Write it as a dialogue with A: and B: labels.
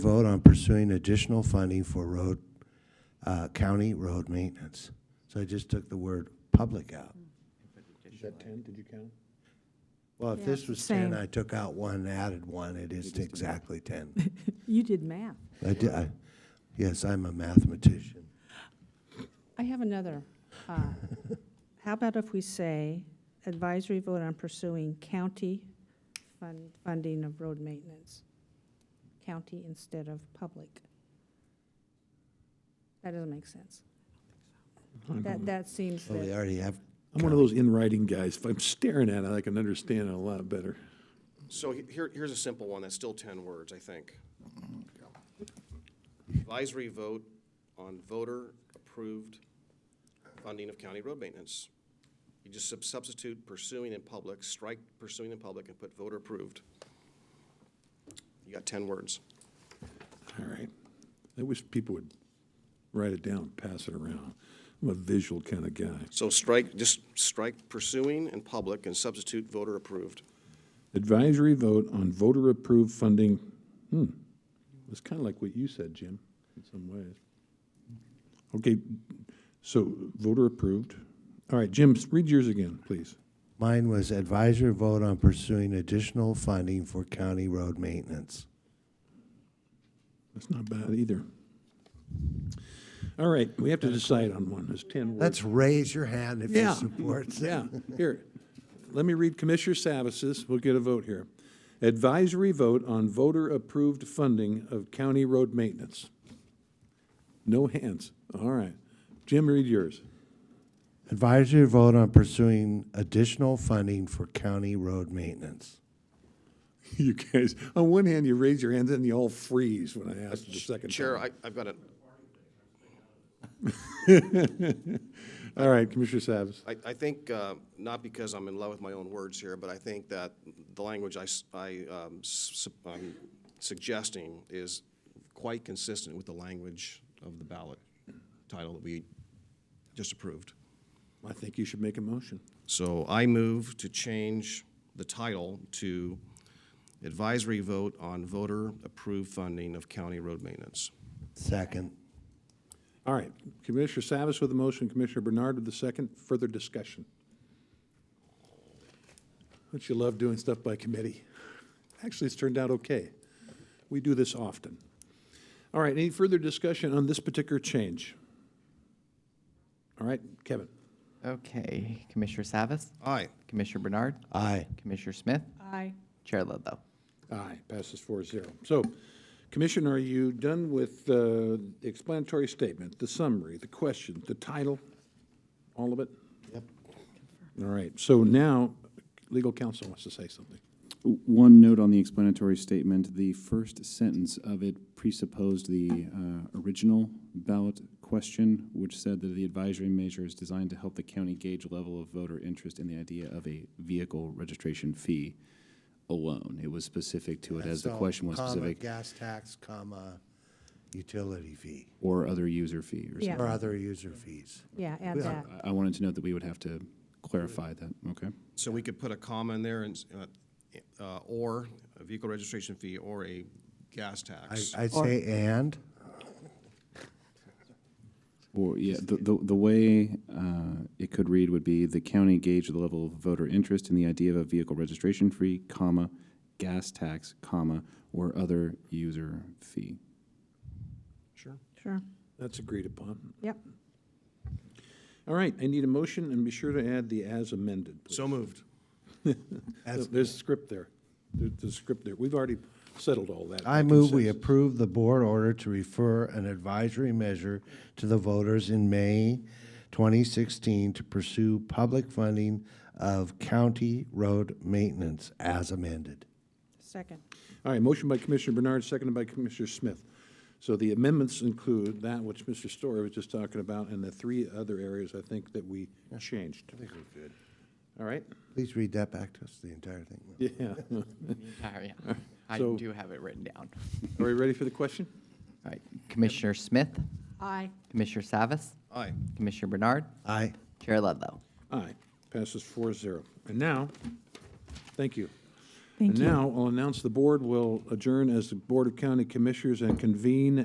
A: Vote on pursuing additional funding for road, uh, county road maintenance. So I just took the word public out.
B: Is that 10? Did you count?
A: Well, if
C: Yeah,
A: this was ten,
C: same.
A: I took out one, added one, it is exactly ten.
C: You did math.
A: I did, I, yes, I'm a mathematician.
C: I have another. uh, How about if we say advisory vote on pursuing county fund- funding of road maintenance? County instead of public? That doesn't make sense. That, that seems
A: Well, we
C: that,
A: already have,
B: I'm one of those in writing guys. If I'm staring at it, I can understand it a lot better.
D: So he- here, here's a simple one, that's still ten words, I think. Advisory vote on voter-approved funding of county road maintenance. You just sub- substitute pursuing in public, strike pursuing in public, and put voter-approved. You got ten words.
B: All right. I wish people would write it down, pass it around. I'm a visual kind of guy.
D: So strike, just strike pursuing in public and substitute voter-approved.
B: Advisory vote on voter-approved funding. Hmm. It's kind of like what you said, Jim, in some ways. Okay, so voter-approved. All right, Jim, read yours again, please.
A: mine was advisory vote on pursuing additional funding for county road maintenance.
B: That's not bad either. All right, we have to decide on one. There's 10 words.
A: Let's raise your hand if you
B: Yeah.
A: support it.
B: Yeah, here, let me read Commissioner Savis's, we'll get a vote here. Advisory vote on voter-approved funding of county road maintenance. No hands, all right. Jim, read yours.
A: Advisory vote on pursuing additional funding for county road maintenance.
B: You guys, on one hand, you raise your hands, and you all freeze when I ask the second
D: Chair,
B: time.
D: I, I've got a,
B: All right, Commissioner Savis.
D: I, I think, uh, not because I'm in love with my own words here, but I think that the language I, s- I, um, s- I'm suggesting is quite consistent with the language of the ballot title that we just approved.
B: I think you should make a motion.
D: So I move to change the title to advisory vote on voter-approved funding of county road maintenance.
A: Second.
B: All right, Commissioner Savis with the motion, Commissioner Bernard with the second. Further discussion. Don't you love doing stuff by committee? Actually, it's turned out okay. We do this often. All right, any further discussion on this particular change? All right, Kevin?
E: Okay, Commissioner Savas,
D: Aye.
E: Commissioner Bernard,
A: Aye.
E: Commissioner Smith,
C: I,
E: Chair Ludlow.
B: Aye, passes four zero. So, Commissioner, are you done with uh, the explanatory statement, the summary, the question, the title, all of it? Yep. All right, so now, legal counsel wants to say something.
F: One note on the explanatory statement, the first sentence of it presupposed the uh, original ballot question, which said that the advisory measure is designed to help the county gauge level of voter interest in the idea of a vehicle registration fee alone. It was specific to it, as the
A: So,
F: question was
A: comma,
F: specific,
A: Gas tax, comma, utility fee,
F: or other user fee or
C: Yeah.
F: something.
A: or other user fees.
C: yeah, add that.
F: I- I wanted to note that we would have to clarify that, okay?
D: So we could put a comma in there and, s- uh, uh, or a vehicle registration fee or a gas tax.
A: I, I'd say and,
F: Or, yeah, the, the, the way uh, it could read would be, the county gauge the level of voter interest in the idea of a vehicle registration fee, comma, gas tax, comma, or other user fee.
D: Sure.
C: Sure,
B: That's agreed upon.
C: yep.
B: All right, I need a motion, and be sure to add the as amended, please.
D: So moved.
B: There's a script there. There's a script there. We've already settled all that.
A: I
B: by
A: move we
B: consensus.
A: approve the board order to refer an advisory measure to the voters in May 2016 to pursue public funding of county road maintenance as amended.
C: Second,
B: All right, motion by Commissioner Bernard, seconded by Commissioner Smith. So the amendments include that which Mr. Story was just talking about and the three other areas I think that we changed. I think we're good. All right,
A: Please read that back to us, the entire thing.
B: yeah.
E: Sorry, I
B: So-
E: do have it written down.
B: Are we ready for the question?
E: All right, Commissioner Smith,
C: I,
E: Commissioner Savas,
D: Aye.
E: Commissioner Bernard,
A: Aye.
E: Chair Ludlow.
B: Aye, passes four zero. And now, thank you.
G: Thank
B: And
G: you.
B: now I'll announce the board will adjourn as the Board of County Commissioners and convene